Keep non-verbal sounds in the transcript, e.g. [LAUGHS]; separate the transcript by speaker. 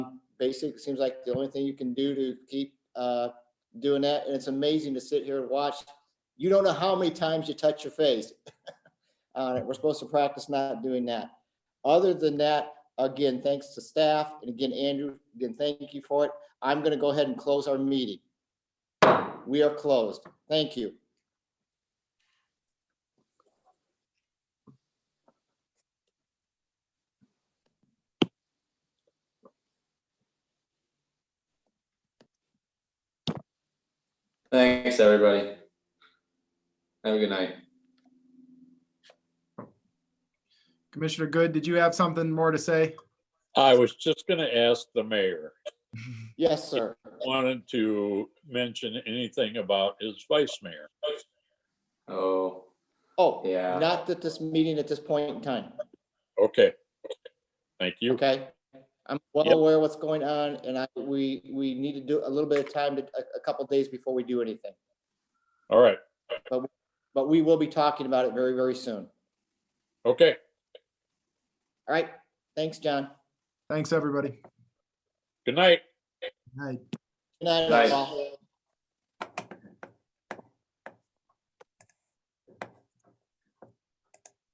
Speaker 1: basic, it seems like the only thing you can do to keep uh, doing that. And it's amazing to sit here and watch. You don't know how many times you touch your face [LAUGHS] on it. We're supposed to practice not doing that. Other than that, again, thanks to staff. And again, Andrew, again, thank you for it. I'm going to go ahead and close our meeting. We are closed. Thank you.
Speaker 2: Thanks, everybody. Have a good night.
Speaker 3: Commissioner Good, did you have something more to say?
Speaker 4: I was just gonna ask the mayor,
Speaker 1: Yes, sir.
Speaker 4: wanted to mention anything about his vice mayor.
Speaker 2: Oh,
Speaker 1: Oh,
Speaker 2: yeah.
Speaker 1: not at this meeting at this point in time.
Speaker 4: Okay. Thank you.
Speaker 1: Okay. I'm well
Speaker 4: Yep.
Speaker 1: aware what's going on and I, we, we need to do a little bit of time, to a, a couple days before we do anything.
Speaker 4: All right.
Speaker 1: But we will be talking about it very, very soon.
Speaker 4: Okay.
Speaker 1: All right. Thanks, John.
Speaker 3: Thanks, everybody.
Speaker 4: Good night.
Speaker 3: Good night.
Speaker 1: Good night,
Speaker 2: Night.
Speaker 1: all.